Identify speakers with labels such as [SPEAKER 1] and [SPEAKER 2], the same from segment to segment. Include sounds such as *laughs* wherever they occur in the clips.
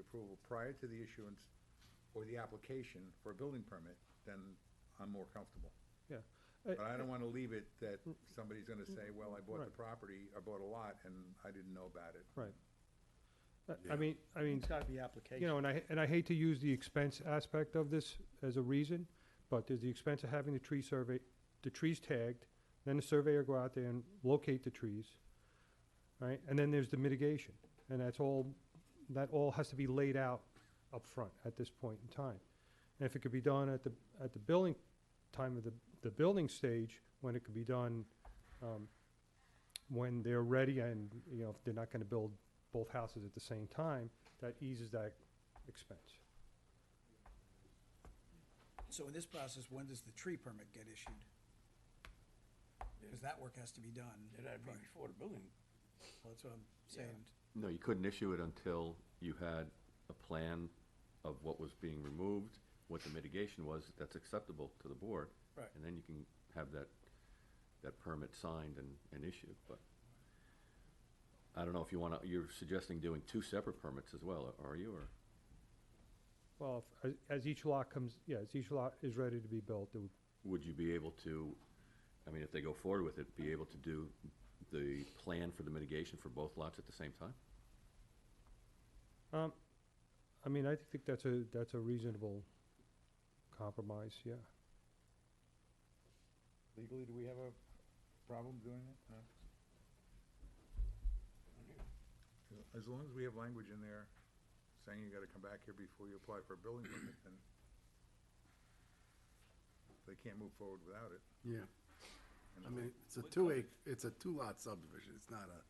[SPEAKER 1] approval prior to the issuance or the application for a building permit, then I'm more comfortable.
[SPEAKER 2] yeah.
[SPEAKER 1] But I don't wanna leave it that somebody's gonna say, well, I bought the
[SPEAKER 2] Mm. Right.
[SPEAKER 1] property, I bought a lot, and I didn't know about it.
[SPEAKER 2] Right. uh, I- I mean, I mean,
[SPEAKER 3] It's gotta be application.
[SPEAKER 2] you know, and I, and I hate to use the expense aspect of this as a reason, but there's the expense of having the tree survey, the trees tagged, then the surveyor go out there and locate the trees, right? And then there's the mitigation, and that's all, that all has to be laid out up front at this point in time. And if it could be done at the, at the building, time of the, the building stage, when it could be done, um, when they're ready and, you know, if they're not gonna build both houses at the same time, that eases that expense.
[SPEAKER 4] So in this process, when does the tree permit get issued? Because that work has to be done.
[SPEAKER 5] It had to be
[SPEAKER 4] prior.
[SPEAKER 5] before the building.
[SPEAKER 4] Well, That's what I'm saying.
[SPEAKER 6] No, you couldn't issue it until you had a plan of what was being removed, what the mitigation was, that's acceptable to the board.
[SPEAKER 4] Right.
[SPEAKER 6] And then you can have that, that permit signed and, and issued, but I don't know if you wanna, you're suggesting doing two separate permits as well, are you, or?
[SPEAKER 2] Well, if- as- as each lot comes, yeah, as each lot is ready to be built, it would,
[SPEAKER 6] Would you be able to, I mean, if they go forward with it, be able to do the plan for the mitigation for both lots at the same time?
[SPEAKER 2] um, I mean, I think that's a, that's a reasonable compromise, yeah.
[SPEAKER 1] Legally, do we have a problem doing it? No? As long as we have language in there saying you gotta come back here before you apply for a building permit, then they can't move forward without it.
[SPEAKER 7] Yeah,
[SPEAKER 1] And
[SPEAKER 7] I mean, it's a two acre, it's a two lot subdivision, it's not a.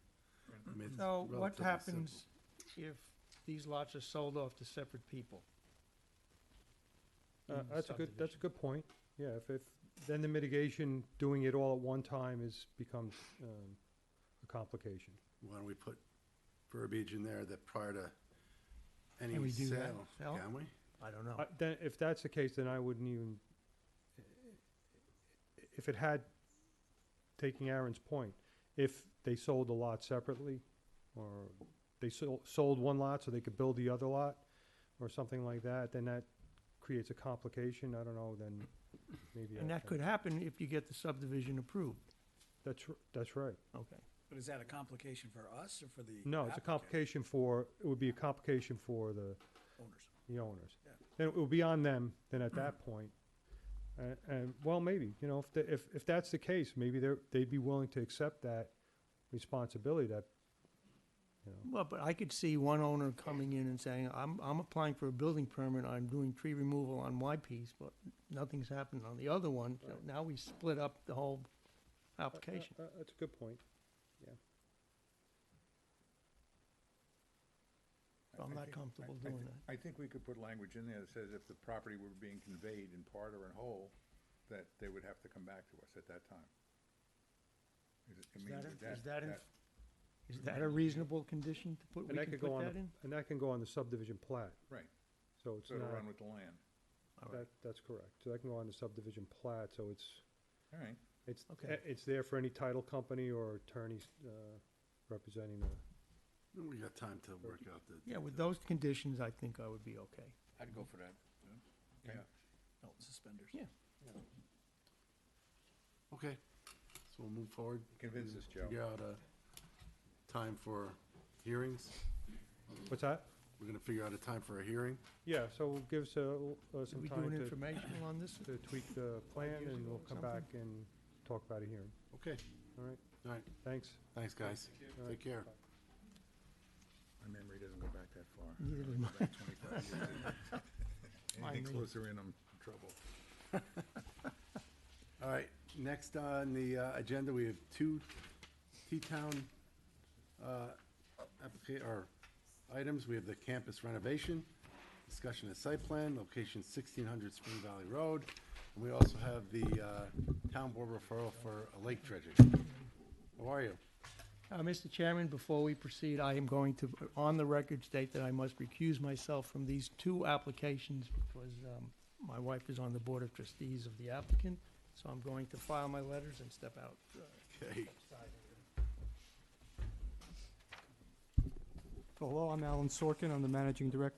[SPEAKER 7] I mean, it's
[SPEAKER 3] So what
[SPEAKER 7] relatively
[SPEAKER 3] happens if these lots are sold off to separate people?
[SPEAKER 2] Uh,
[SPEAKER 3] in the
[SPEAKER 2] that's a good, that's a
[SPEAKER 3] subdivision?
[SPEAKER 2] good point, yeah, if, if, then the mitigation, doing it all at one time is, becomes, um, a complication.
[SPEAKER 7] simple. Why don't we put verbiage in there that prior to any
[SPEAKER 3] Can we do that,
[SPEAKER 7] sale,
[SPEAKER 3] Al?
[SPEAKER 7] can we?
[SPEAKER 3] I don't know.
[SPEAKER 2] I- Then, if that's the case, then I wouldn't even, if it had, taking Aaron's point, if they sold the lot separately, or they sold, sold one lot so they could build the other lot, or something like that, then that creates a complication, I don't know, then maybe.
[SPEAKER 3] And
[SPEAKER 2] I-
[SPEAKER 3] that could happen if you get the subdivision approved.
[SPEAKER 2] That's, r- that's right.
[SPEAKER 3] Okay.
[SPEAKER 4] But is that a complication for us or for the?
[SPEAKER 2] No, it's a
[SPEAKER 4] applicant,
[SPEAKER 2] complication for, it would be a complication for the,
[SPEAKER 4] Owners.
[SPEAKER 2] the owners.
[SPEAKER 4] Yeah.
[SPEAKER 2] Then it will be on them, then
[SPEAKER 1] *clears throat*
[SPEAKER 2] at that point, and, and, well, maybe, you know, if, the- if, if that's the case, maybe they're, they'd be willing to accept that responsibility, that, uh, you know,
[SPEAKER 3] Well, but I could see one owner coming in and saying, I'm, I'm applying for a building permit, I'm doing tree removal on my piece, but nothing's happened on the other one, so now we split up the whole application.
[SPEAKER 2] Uh, uh, That's a good point.
[SPEAKER 1] I-
[SPEAKER 3] I'm
[SPEAKER 1] I
[SPEAKER 3] not
[SPEAKER 1] think-
[SPEAKER 3] comfortable
[SPEAKER 1] I- I
[SPEAKER 3] doing
[SPEAKER 1] thi-
[SPEAKER 3] that.
[SPEAKER 1] I think we could put language in there that says if the property were being conveyed in part or in whole, that they would have to come back to us at that time. Is it- I
[SPEAKER 3] Is
[SPEAKER 1] mean,
[SPEAKER 3] that,
[SPEAKER 1] would
[SPEAKER 3] a- is that, in-
[SPEAKER 1] that-
[SPEAKER 3] is that a reasonable condition to put,
[SPEAKER 2] And
[SPEAKER 3] we
[SPEAKER 2] that
[SPEAKER 3] can
[SPEAKER 2] could go
[SPEAKER 3] put
[SPEAKER 2] on,
[SPEAKER 3] that
[SPEAKER 2] the-
[SPEAKER 3] in?
[SPEAKER 2] and that can go on the subdivision plat,
[SPEAKER 1] Right,
[SPEAKER 2] so it's
[SPEAKER 1] so to
[SPEAKER 2] not,
[SPEAKER 1] run with the land.
[SPEAKER 3] All right.
[SPEAKER 2] that, that's correct. So that can go on the subdivision plat, so it's,
[SPEAKER 1] All right,
[SPEAKER 2] it's,
[SPEAKER 3] Okay.
[SPEAKER 2] it's there for any title company or attorneys, uh, representing the.
[SPEAKER 7] We got time to work out the.
[SPEAKER 3] Yeah, with those conditions, I think I would be okay.
[SPEAKER 5] I'd go for that.
[SPEAKER 1] yeah.
[SPEAKER 4] Belt and suspenders.
[SPEAKER 3] Yeah.
[SPEAKER 7] Okay, so we'll move forward.
[SPEAKER 1] Convince
[SPEAKER 7] and
[SPEAKER 1] us, Joe.
[SPEAKER 7] Figure out a time for hearings,
[SPEAKER 2] What's that?
[SPEAKER 7] we're gonna figure out a time for a hearing.
[SPEAKER 2] Yeah, so give us a l- uh,
[SPEAKER 3] Did
[SPEAKER 2] some
[SPEAKER 3] we do
[SPEAKER 2] time
[SPEAKER 3] an
[SPEAKER 2] to
[SPEAKER 3] informational on this?
[SPEAKER 2] to tweak the plan,
[SPEAKER 3] years
[SPEAKER 2] and
[SPEAKER 3] ago
[SPEAKER 2] we'll
[SPEAKER 3] or
[SPEAKER 2] come
[SPEAKER 3] something?
[SPEAKER 2] back and talk about it here.
[SPEAKER 7] Okay,
[SPEAKER 2] All right,
[SPEAKER 7] all right,
[SPEAKER 2] thanks.
[SPEAKER 7] thanks, guys,
[SPEAKER 2] All right.
[SPEAKER 7] take care.
[SPEAKER 1] My memory doesn't go back that far.
[SPEAKER 3] Neither
[SPEAKER 1] I
[SPEAKER 3] does
[SPEAKER 1] go
[SPEAKER 3] mine.
[SPEAKER 1] back
[SPEAKER 3] *laughs*
[SPEAKER 1] 25 years.
[SPEAKER 3] Mine
[SPEAKER 1] Anything
[SPEAKER 3] neither.
[SPEAKER 1] closer in, I'm in trouble.
[SPEAKER 7] All right, next on the uh, agenda, we have two T-Town uh, applica- or items. We have the campus renovation, discussion of site plan, location 1600 Spring Valley Road. And we also have the uh, town board referral for a lake dredging. How are you?
[SPEAKER 3] Uh, Mr. Chairman, before we proceed, I am going to, on the record, state that I must recuse myself from these two applications because um, my wife is on the Board of Trustees of the applicant, so I'm going to file my letters and step out.
[SPEAKER 7] Okay,
[SPEAKER 8] Hello, I'm Alan Sorkin, I'm the Managing Director